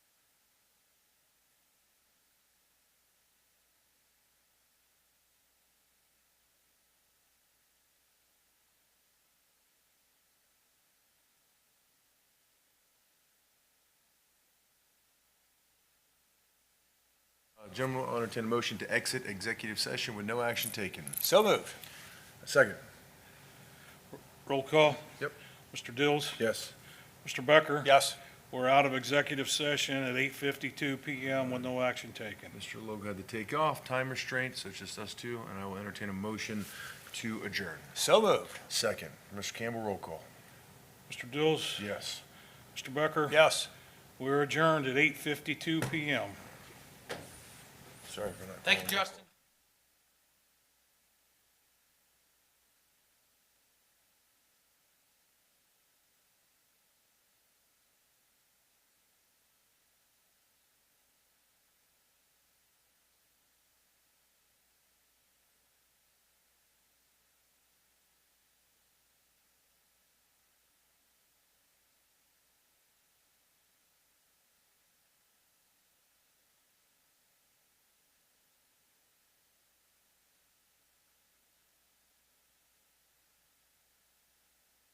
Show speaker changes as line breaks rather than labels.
Uh, Gentlemen, I'll entertain a motion to exit executive session with no action taken.
So moved.
Second.
Roll call.
Yep.
Mr. Dills?
Yes.
Mr. Becker?
Yes.
We're out of executive session at 8:52 PM with no action taken.
Mr. Logue had to take off, time restraints, so it's just us two, and I will entertain a motion to adjourn.
So moved.
Second. Mr. Campbell, roll call.
Mr. Dills?
Yes.
Mr. Becker?
Yes.
We're adjourned at 8:52 PM.
Sorry for not.
Thank you, Justin.